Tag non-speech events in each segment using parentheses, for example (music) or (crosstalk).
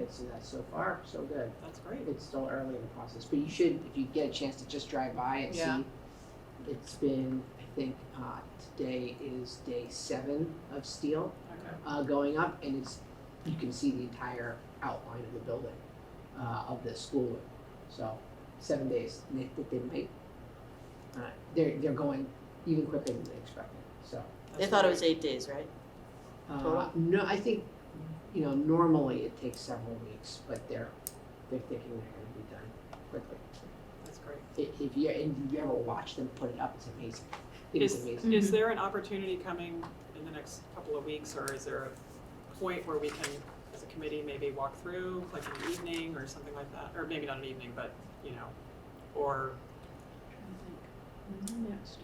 kids, and that's uh, so far, so good. That's great. It's still early in the process, but you should, if you get a chance to just drive by and Yeah. see. It's been, I think, uh, today is day seven of steel, Okay. uh, going up, and it's, you can see the entire outline of the building, uh, of the school. So, seven days, and they think they might, uh, they're, they're going even quicker than they expected, so. They thought it was eight days, right? Uh, Total? no, I think, you know, normally it takes several weeks, but they're, they're thinking they're gonna be done quickly. That's great. I- If you, and if you ever watch them put it up, it's amazing. It is Is, amazing. is there an opportunity coming in the next couple of weeks, or is there a point where we can, as a committee, maybe walk through, like an evening or something like that? Or maybe not an evening, but, you know, or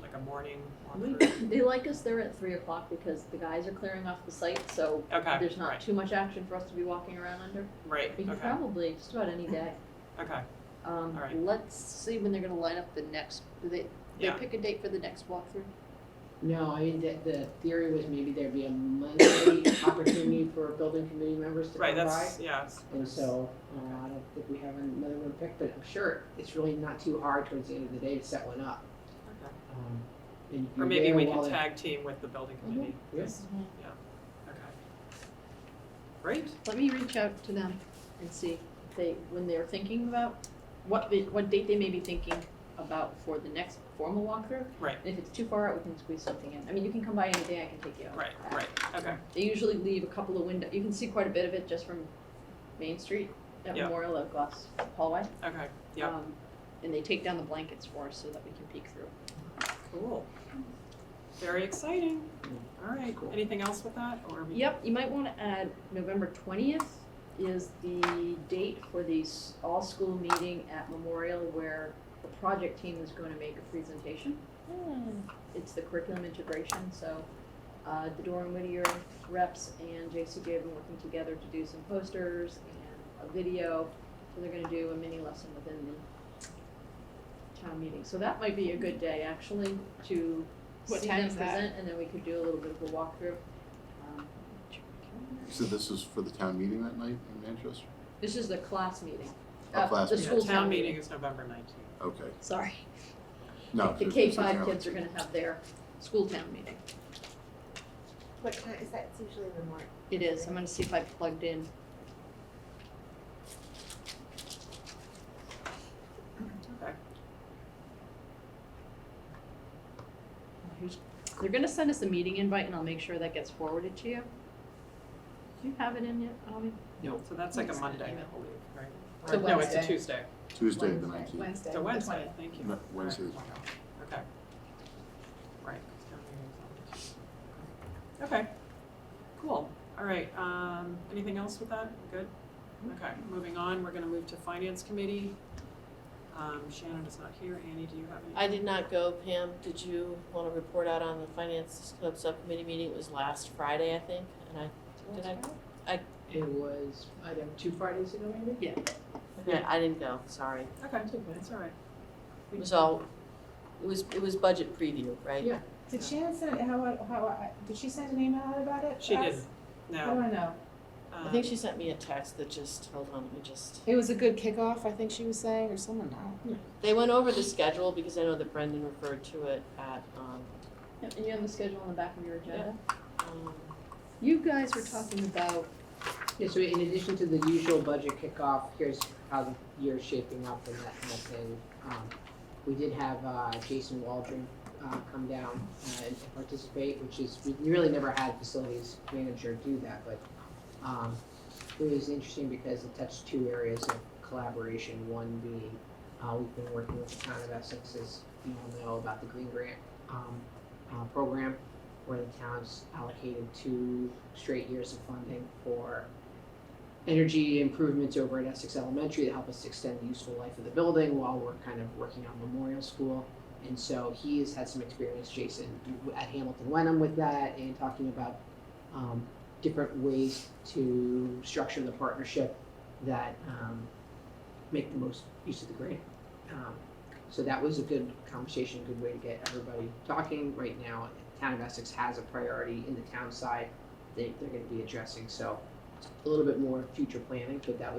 like a morning walkthrough? (coughs) They like us there at three o'clock because the guys are clearing off the site, so Okay, there's not Ah, right, too much action for us to be walking around under. right, We can okay, probably, just about (coughs) any day. okay, Um, All right. let's see when they're gonna line up the next, do they, they Yeah. pick a date for the next walkthrough? No, I mean, the, the theory was maybe there'd be a (coughs) Monday opportunity for building committee members to right, come by. that's, yeah. it's- And so, uh, I don't think we have another one picked, but I'm sure it's really not too hard towards the end of the day to set one up. okay. Um, And Or you're maybe there we while Mm-hmm. can they're- tag team with the building committee, Yeah. yes, yeah, okay. Great, Let me reach out to them and see if they, when they're thinking about, what, the- what date they may be thinking about for the next formal walkthrough. Right. And if it's too far out, we can squeeze something in. I mean, you can come by any day, I can take you out. right, right, okay, They usually leave a couple of window, you can see quite a bit of it just from Main Street, that Yeah. memorial of glass hallway. okay, Yeah. Um, And they take down the blankets for us so that we can peek through. Mm-hmm. cool. Very exciting, all right, Cool. anything else with that, or? we- Yep, you might wanna add November twentieth is the date for the s- all-school meeting at Memorial where the project team is gonna make a presentation. It's the curriculum integration, so, uh, the Doran Whittier reps and JCJ have been working together to do some posters and a video. So they're gonna do a mini lesson within the town meeting, so that might be a good day actually to What see time them is that? present and then we could do a little bit of a walkthrough. Um, So this is for the town meeting that night in Manchester? This is the class meeting. Our Uh, class The Yeah, school town meeting is November nineteenth. Okay, Sorry. no. The so K it's something five else. kids are gonna have their school town meeting. What time is that? It's usually the morning. It is, I'm gonna see if I plugged in. Okay, Here's- They're gonna send us a meeting invite and I'll make sure that gets forwarded to you. Do you have it in yet, Avi? so that's like a Next Monday, email. I believe, right? It's a Or- No, it's a Wednesday. Tuesday, Tuesday, the Wednesday. nineteenth. Wednesday. it's a the Wednesday, 20th. thank you. No, Wednesday. All right, wow, Okay. Right, 'cause town meeting is on the 20th. Okay, cool, all right, um, anything else with that, good? Okay, moving on, we're gonna move to finance committee. Um, Shannon is not here, Annie, do you have any? I did not go, Pam, did you wanna report out on the finance club subcommittee meeting, it was last Friday, I think, and I, did I? It was, I don't know, two Fridays ago maybe? Yeah, I didn't go, sorry, Okay, that's all right. it was all, it was, it was budget preview, right? Yeah. Did Shannon send, how, how, I- did she send an email out about it? Uh, She to did, us? How do no, I know? I um, think she sent me a text that just, hold on, let me just, It was a good kickoff, I think she was saying, or someone, I they went over the schedule because I know that Brendan referred to it at, um, Yep, And you have the schedule on the back of your agenda? um, You guys were talking about, Yeah, so in addition to the usual budget kickoff, here's how the year's shaping up and that kind of thing. Um, We did have uh, Jason Waldron uh, come down uh, and and participate, which is, we really never had a facilities manager do that, but um, it was interesting because it touched two areas of collaboration, one being, uh, we've been working with the town of Essex, as you all know, about the Green Grant um, uh, program, where the town's allocated two straight years of funding for energy improvements over at Essex Elementary to help us extend the useful life of the building while we're kind of working on Memorial School. And so he has had some experience, Jason, at Hamilton Wenham with that and talking about um, different ways to structure the partnership that um, make the most use of the grant. Um, so that was a good conversation, good way to get everybody talking. Right now, the town of Essex has a priority in the town side they, they're going to be addressing. So a little bit more future planning, but that was.